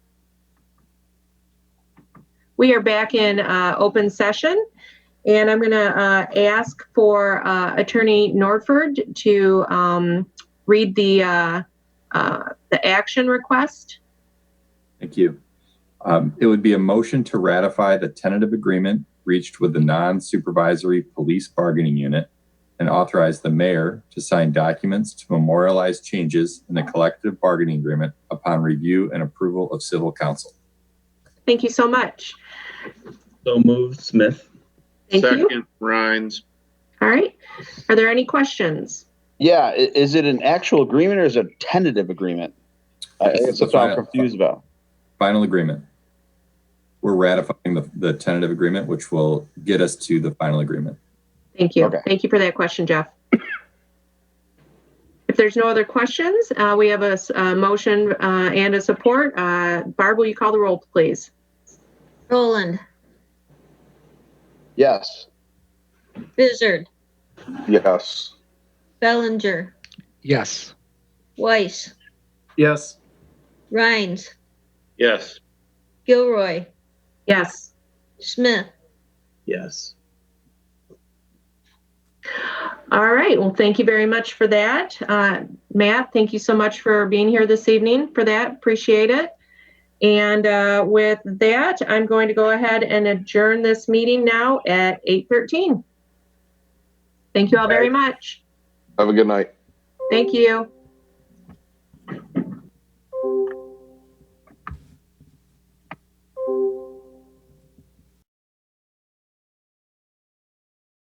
We are back in uh, open session, and I'm going to uh, ask for uh, Attorney Norford to um, read the uh, uh, the action request. Thank you. Um, it would be a motion to ratify the tentative agreement reached with the non-supervisory police bargaining unit and authorize the mayor to sign documents to memorialize changes in the collective bargaining agreement upon review and approval of civil council. Thank you so much. So moved, Smith. Thank you. Second, Rhines. All right. Are there any questions? Yeah, i- is it an actual agreement or is it a tentative agreement? I- This is That's what I'm final. confused about. Final agreement. We're ratifying the, the tentative agreement, which will get us to the final agreement. Thank you. Okay. Thank you for that question, Jeff. If there's no other questions, uh, we have a, s- a motion uh, and a support. Uh, Barb, will you call the roll, please? Roland, Yes. Bizzard, Yes. Bellinger, Yes. Weiss, Yes. Rhines, Yes, Gilroy, Yes. Smith. Yes. All right. Well, thank you very much for that. Uh, Matt, thank you so much for being here this evening for that. Appreciate it. And uh, with that, I'm going to go ahead and adjourn this meeting now at 8:13. Thank you all very much. have a good night. Thank you.